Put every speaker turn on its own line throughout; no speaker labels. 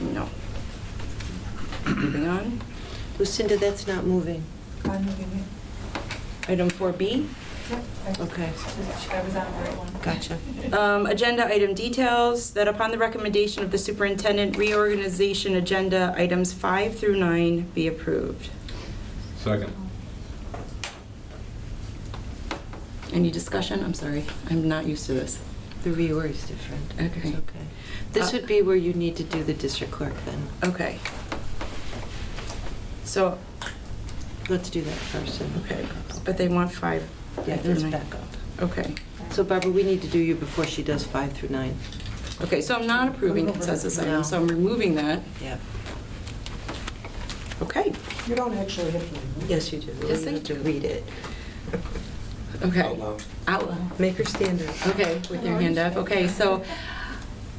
No. Moving on.
Lucinda, that's not moving.
I'm moving
Item 4B,
it.
Okay.
I was on the right one.
Gotcha.
um, agenda item details, that upon the recommendation of the superintendent, reorganization agenda items 5 through 9 be approved.
Second.
Any discussion? I'm sorry, I'm not used to this.
The reorg is different. It's
Okay. Uh,
okay. This would be where you need to do the district clerk then.
Okay. So,
Let's do that first. and-
okay, but they want 5.
Yeah,
through
let's
nine.
back up.
Okay.
So Barbara, we need to do you before she does five through nine.
Okay, so I'm not approving consensus
No.
items, so I'm removing that.
Yeah.
Okay,
You don't actually have to.
Yes, you do.
Yes,
You
I
have to
do.
read it.
okay.
loud.
Out loud.
Make her stand up.
Okay, with your hand up. Okay, so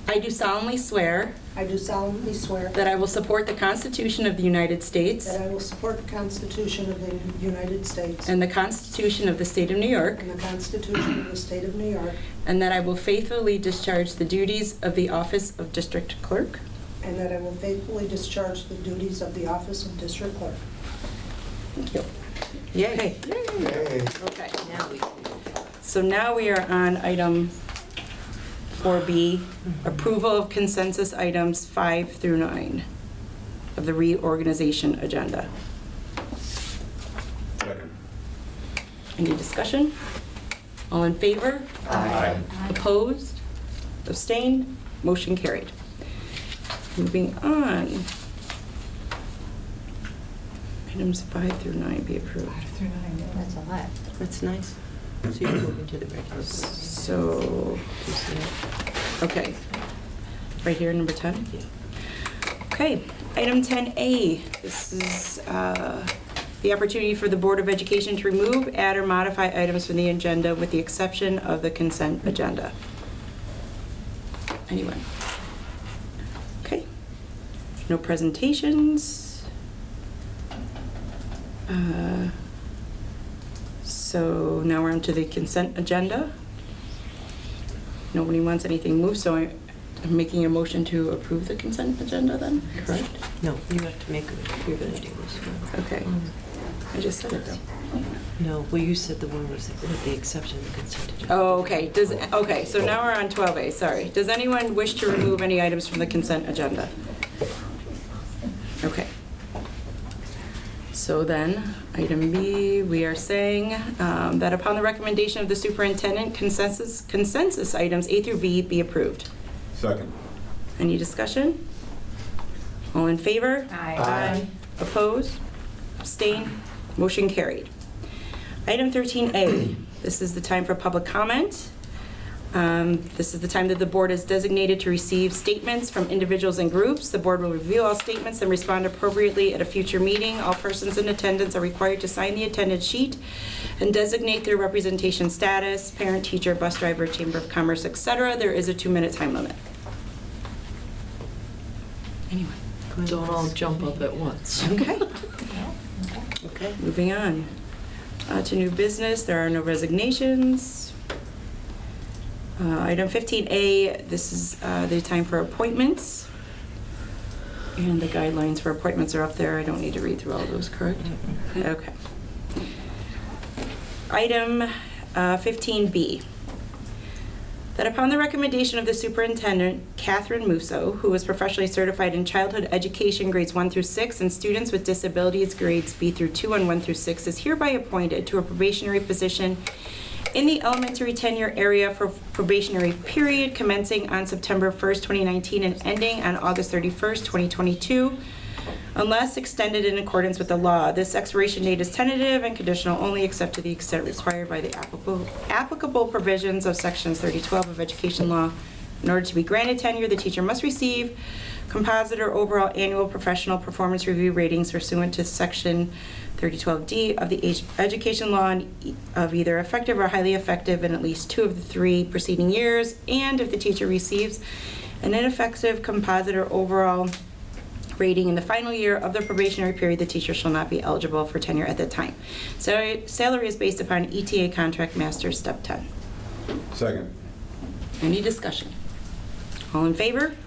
I do solemnly swear
I do solemnly swear
that I will support the Constitution of the United States
that I will support the Constitution of the United States
and the Constitution of the State of New York,
and the Constitution of the State of New York,
and that I will faithfully discharge the duties of the Office of District Clerk
and that I will faithfully discharge the duties of the office of district clerk.
Yay.
Okay.
Now we
So now we are on item 4B, approval of consensus items 5 through 9 of the reorganization agenda.
Second.
Any discussion? All in favor?
Aye.
Opposed? Abstained? Motion carried. Moving on. Items 5 through 9 be approved.
Five through nine, yeah.
That's a lot.
That's nice. So you're moving to the regular. board.
So,
Do you see it?
okay. Right here, number 10?
Yeah.
Okay, item 10A, this is uh, the opportunity for the Board of Education to remove, add, or modify items from the agenda with the exception of the consent agenda. Anyone? Okay, no presentations. Uh, So now we're on to the consent agenda. Nobody wants anything moved, so I- I'm making a motion to approve the consent agenda then, correct?
No, you have to make, it. you're gonna do this one.
Okay, I just said it though.
No, well, you said the one was with the exception of the consent agenda.
Oh, okay, does, okay, so now we're on 12A, sorry. Does anyone wish to remove any items from the consent agenda? Okay. So then, item B, we are saying um, that upon the recommendation of the superintendent, consensus, consensus items A through B be approved.
Second.
Any discussion? All in favor?
Aye.
Aye. Opposed? Abstained? Motion carried. Item 13A, this is the time for public comment. Um, This is the time that the board is designated to receive statements from individuals and groups. The board will review all statements and respond appropriately at a future meeting. All persons in attendance are required to sign the attendance sheet and designate their representation status, parent, teacher, bus driver, chamber of commerce, etc. There is a two-minute time limit. Anyone?
Don't all jump up at once.
Okay.
Okay.
Moving on Uh, to new business, there are no resignations. Uh, Item 15A, this is uh, the time for appointments. And the guidelines for appointments are up there. I don't need to read through all of those, correct? Okay. Item uh, 15B, that upon the recommendation of the superintendent, Catherine Musso, who is professionally certified in childhood education grades 1 through 6 and students with disabilities grades B through 2 and 1 through 6, is hereby appointed to a probationary position in the elementary tenure area for probationary period commencing on September 1st, 2019 and ending on August 31st, 2022, unless extended in accordance with the law. This expiration date is tentative and conditional only except to the extent required by the applicable applicable provisions of Sections 3012 of Education Law. In order to be granted tenure, the teacher must receive composite or overall annual professional performance review ratings pursuant to Section 3012D of the age- Education Law and e- of either effective or highly effective in at least two of the three preceding years, and if the teacher receives an ineffective composite or overall rating in the final year of the probationary period, the teacher shall not be eligible for tenure at that time. Salary, salary is based upon ETA contract master step 10.
Second.
Any discussion? All in favor?